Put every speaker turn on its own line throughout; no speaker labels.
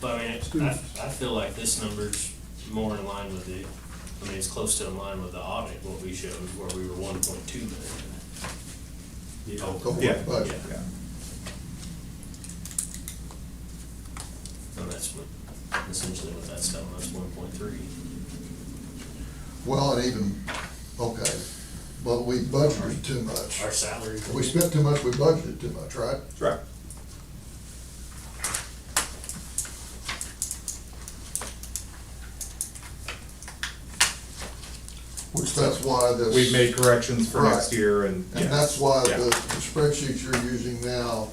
But I mean, it- I, I feel like this number's more in line with the, I mean, it's close to in line with the audit, what we showed, where we were one point two million. The
The
over,
whole
Yeah.
budget.
Yeah.
and that's what, essentially what that's telling us, one point three.
Well, and even, okay, but we budgeted too much.
Our salary.
We spent too much, we budgeted too much, right?
That's right.
So That's why this.
We've made corrections for next
Right.
year and.
And that's why
Yeah.
the the spreadsheet you're using now,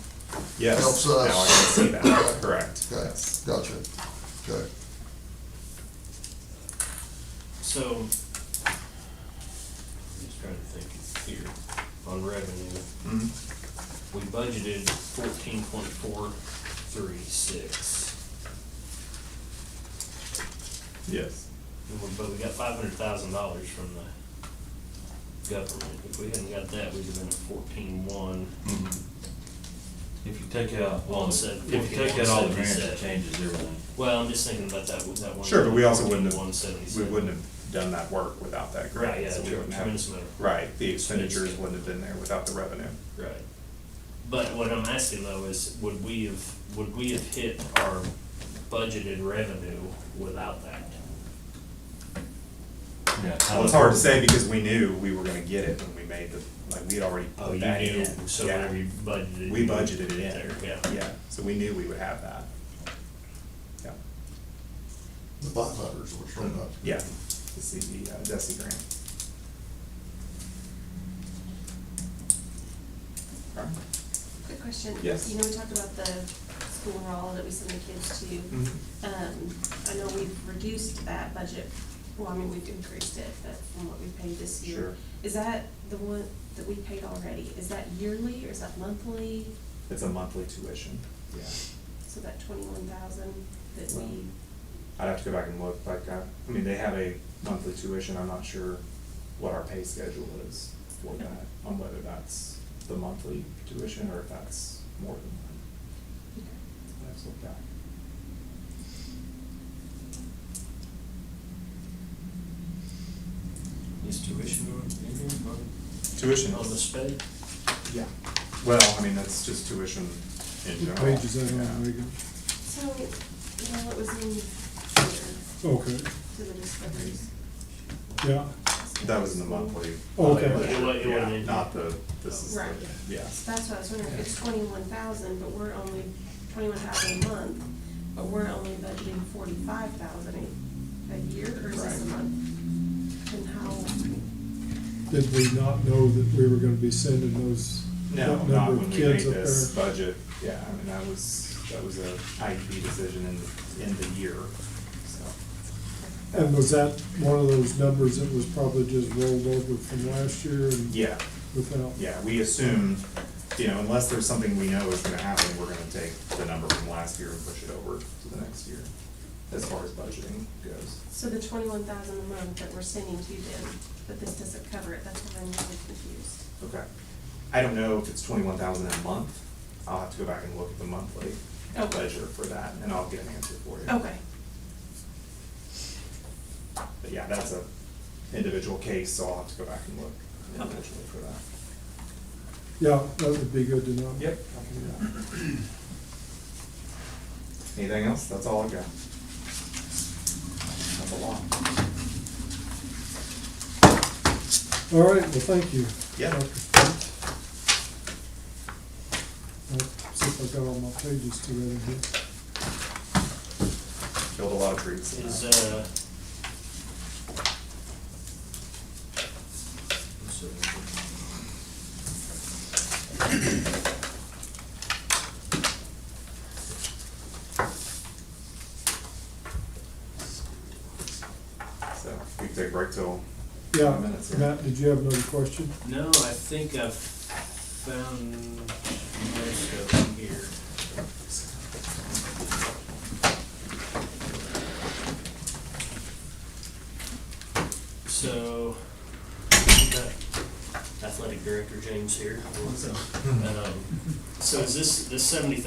Yes.
helps
Now I
us.
can see that, correct.
okay,
Yes.
gotcha, okay.
So, I'm just trying to think here, on revenue,
Mhm.
Mm-hmm.
we budgeted fourteen point four three six.
Yes.
And we- But we got five hundred thousand dollars from the government. If we hadn't got that, we'd have been at fourteen one.
If you take out,
Well,
all
it's
the-
at
if you take out all the grants,
41.77.
it changes everything.
Well, I'm just thinking about that, that one.
Sure, but we also wouldn't have-
One seventy-seven.
We wouldn't have done that work without that grant.
Right, yeah,
so we wouldn't have-
tremendous amount of-
Right, the expenditures wouldn't have been there without the revenue.
Right. But what I'm asking though is, would we have, would we have hit our budgeted revenue without that?
Well, it's hard to say because we knew we were gonna get it when we made the, like, we had already put Oh, that in.
Oh, So
Yeah.
whenever you budgeted.
We
you
budgeted it
put
in.
there, Yeah.
Yeah, so we knew we would have that. Yeah,
The five hundreds were shown up.
yeah, the CD, uh, DESI grant. All right.
Quick question.
Yes.
You know, we talked about the school roll that we send the kids to.
Mhm.
Um, I know we've reduced that budget, well, I mean, we've increased it, but from what we paid this year.
Sure.
Is that the one that we paid already? Is that yearly or is that monthly?
It's a monthly tuition, yeah.
So that twenty-one thousand that we,
I'd have to go back and look, like, I, I mean, they have a monthly tuition, I'm not sure what our pay schedule is for that, on whether that's the monthly tuition or if that's more than that. I'd have to look back.
Is tuition on, in here,
Tuition
on- on the
is,
sped?
yeah, well, I mean, that's just tuition in
What
general.
page is that
Yeah.
on, Reagan?
so, you know, it was in here
Okay,
to the discoveries.
yeah,
That was in the monthly.
Oh, Okay.
uh,
It wa- it
yeah,
wasn't in-
Not the, this is the,
Right.
yeah.
So That's what I was wondering, it's twenty-one thousand, but we're only, twenty-one thousand a month, but we're only budgeting forty-five thousand a, a year or is this a
Right.
month? And how,
did we not know that we were gonna be sending those,
No,
that
not
number
when
of
we made
kids up
this
there?
budget, yeah, I mean, that was, that was a IEP decision in, in the year, so.
And was that one of those numbers that was probably just rolled over from last year and?
Yeah,
Without?
yeah, we assumed, you know, unless there's something we know is gonna happen, we're gonna take the number from last year and push it over to the next year, as far as budgeting goes.
so the twenty-one thousand a month that we're sending to them, but this doesn't cover it, that's why I'm really confused.
Okay. I don't know if it's twenty-one thousand a month, I'll have to go back and look at the monthly
Okay.
ledger for that, and I'll get an answer for you.
Okay,
But yeah, that's a individual case, so I'll have to go back and look individually for that.
Yeah, that would be good to know.
Yep, I can do that. Anything else? That's all I got. That's a lot.
All right, well, thank you.
Yeah.
Dr. Fitz. Let's See if I got all my pages together here.
Killed a lot of trees. in
Is,
that.
uh. I'm sorry.
So we can take a break till
Yeah,
five minutes here.
Matt, did you have another question?
No, I think I've found most of them here. So, got athletic director James here. Um, So is this, this seventy